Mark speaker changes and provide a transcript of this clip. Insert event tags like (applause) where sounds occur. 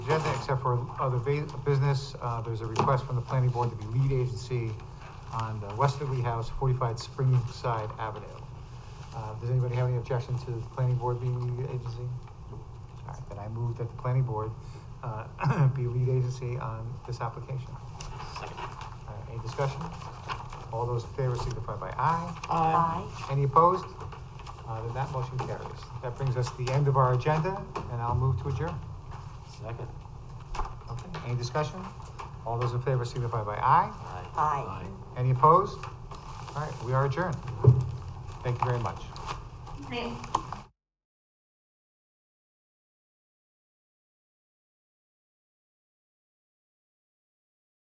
Speaker 1: agenda except for other va- business. Uh, There's a request from the planning board to be lead agency on the Westerly House, 45 Springside Avenue. Uh, Does anybody have any objection to the planning board being lead agency? All right, then I move that the planning board uh, (clears throat) be lead agency on this application. All right, Any discussion? All those in favor signify by aye.
Speaker 2: Aye.
Speaker 1: Any opposed? Uh, Then that motion carries. That brings us to the end of our agenda, and I'll move to adjourn.
Speaker 3: Second.
Speaker 1: Okay, any discussion? All those in favor signify by aye.
Speaker 2: Aye.
Speaker 1: Any opposed? All right, we are adjourned. Thank you very much.
Speaker 4: Thanks.